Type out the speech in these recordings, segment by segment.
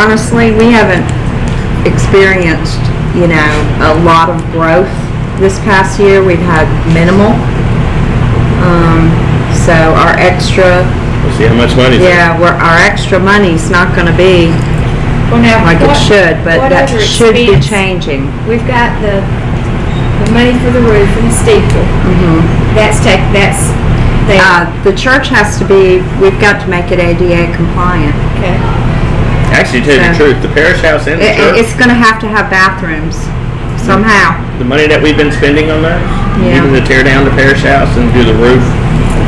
honestly, we haven't experienced, you know, a lot of growth this past year. We've had minimal. Um, so our extra, We'll see how much money's there. yeah, we're, our extra money's not gonna be Well, now, like it what- should, but what that other should be expense? changing. We've got the, the money for the roof and the steeple. Mm-hmm. That's take, that's, they, Uh, the church has to be, we've got to make it ADA compliant. okay. Actually, to tell you the Yeah. truth, the parish house and the It, church, it's gonna have to have bathrooms somehow. the money that we've been spending on that, Yeah. even to tear down the parish house and do the roof,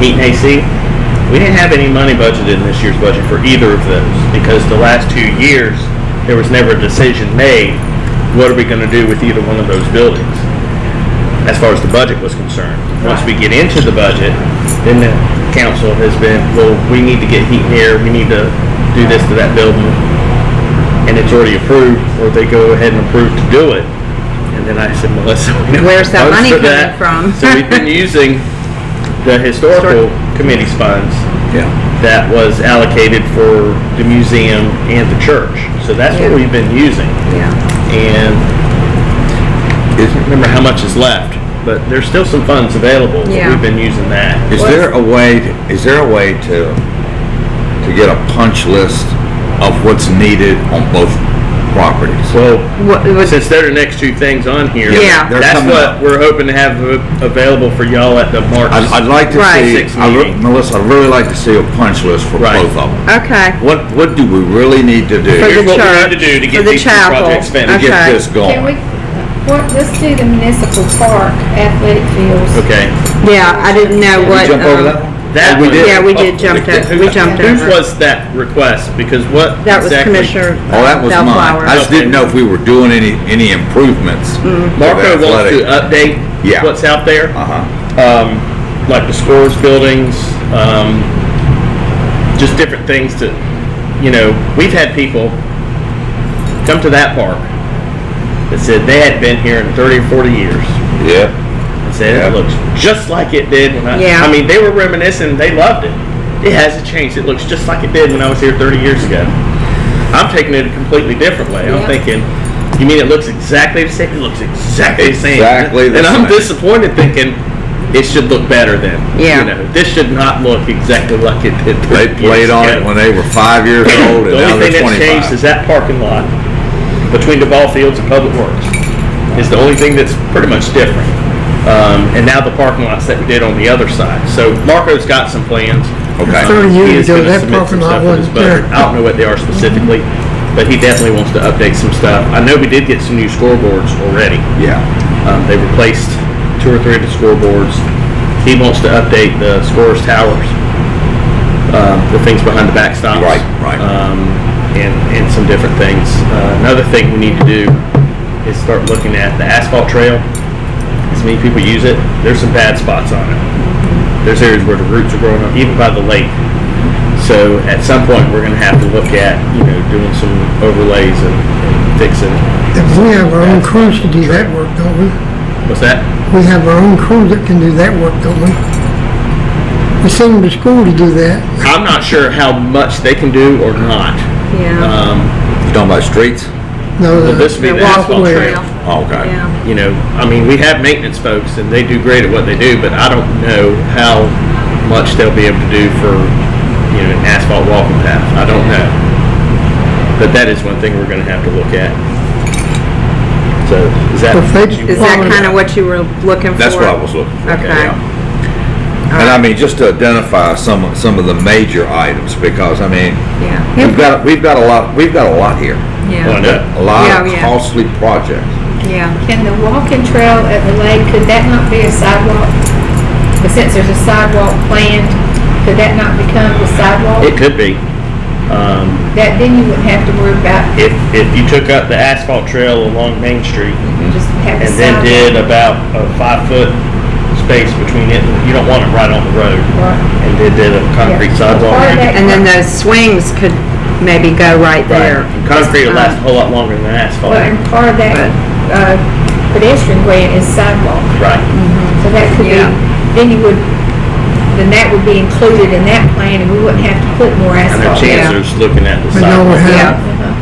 heat and AC, we didn't have any money budgeted in this year's budget for either of those because the last two years, there was never a decision made, what are we going to do with either one of those buildings? As far as the budget was concerned. Once we get into the budget, then the council has been, well, we need to get heat and air, we need to do this to that building. And it's already approved, or they go ahead and approve to do it. And then I said, Melissa, we don't Where's that have funds money for coming that. from? So we've been using the historical committee's funds Yeah. that was allocated for the museum and the church. So that's what Yeah. we've been using. Yeah. And I Is, don't remember how much is left, but there's still some funds available. but Yeah. We've been using that. is there a way, is there a way to, to get a punch list of what's needed on both properties? Well, What, what, since they're the next two things on here, Yeah. They're that's coming what up. we're hoping to have a- available for y'all at the March. I'd, I'd like to Right. see, Six I re- meeting. Melissa, I'd really like to see a punch list for Right. both of them. okay. What, what do we really need to do For to the Here's what we need to church, do to for get the these two chapel. projects get finished. okay. this Can we, going? what, let's do the municipal park athletic fields. Okay. Yeah, I didn't know Did we what. jump over um, that one? That Oh, we one- did. Yeah, we did Oh, jump okay. over. We jumped Whose over. was that request? Because what That was exactly- Commissioner Oh, that was mine. Bellflower. Mm-hmm. I just didn't know if we were doing any, any improvements. to Marco the wants to uh, athletic. update Yeah. what's out there, Uh-huh. um, like the scores buildings, um, just different things to, you know, we've had people come to that park that said they hadn't been here in 30 or 40 years. Yeah. and said it Yeah. looks just like it did when I, Yeah. I mean, they were reminiscing, they loved it. It hasn't changed. It looks just like it did when I was here 30 years ago. I'm taking it a completely different way. I'm Yeah. thinking, you mean it looks exactly the same? It looks exactly the same. Exactly the and I'm same. disappointed thinking it should look better then. Yeah. You know, this should not look exactly like it did. They 30 years played on ago. it when they were five years old and The now only thing they're that's changed is twenty-five. that parking lot between the ball fields and Public Works is the only thing that's pretty much different. Um, and now the parking lots that we did on the other side. So Marco's got some plans. Okay. Um, 30 years he is ago, gonna that submit some parking lot stuff in his wasn't budget. I there. don't know what they are specifically, but he definitely wants to update some stuff. I know we did get some new scoreboards already. Yeah, Um, they replaced two or three of the scoreboards. He wants to update the scores towers, um, the things behind the backstops. Right, right. Um, and, and some different things. Uh, another thing we need to do is start looking at the asphalt trail. As many people use it, there's some bad spots on it. There's areas where the roots are growing up, even by the lake. So at some point, we're going to have to look at, you know, doing some overlays and, and fixing. If we have our own crews to do that work, don't we? What's that? We have our own crews that can do that work, don't we? We send them to school to do that. I'm not sure how much they can do or not. Yeah. Um, you talking about streets? No, Well, this would be the the asphalt walkway. trail. Oh, Okay. Yeah. you know, I mean, we have maintenance folks and they do great at what they do, but I don't know how much they'll be able to do for, you know, an asphalt walking path. I don't know. But that is one thing we're gonna have to look at. So, is that? If they- Is that kind of what you were looking for? That's what I was looking for. Okay. yeah. And I mean, just to identify some, some of the major items because, I mean, Yeah. we've got, we've got a lot, we've got a lot here. Why Yeah. not? A lot Yeah, of yeah. costly projects. Yeah. Can the walking trail at the lake, could that not be a sidewalk? But since there's a sidewalk planned, could that not become the It sidewalk? could be. Um, That, then you wouldn't have to worry about, if, if you took up the asphalt trail along Main Street just have a and then did sidewalk. about a five-foot space between it, you don't want it right on the road. Right. and they did a concrete Yeah. sidewalk. Part of that- And then those swings could maybe go right there. And Concrete will um, last a whole lot longer than asphalt. Well, and part of that, uh, pedestrian grant is sidewalk. Right. So that could be, Yeah. then you would, then that would be included in that plan and we wouldn't have to put more And the asphalt. chance- down. chancellor's looking at the But y'all would sidewalk. uh, Yeah. have,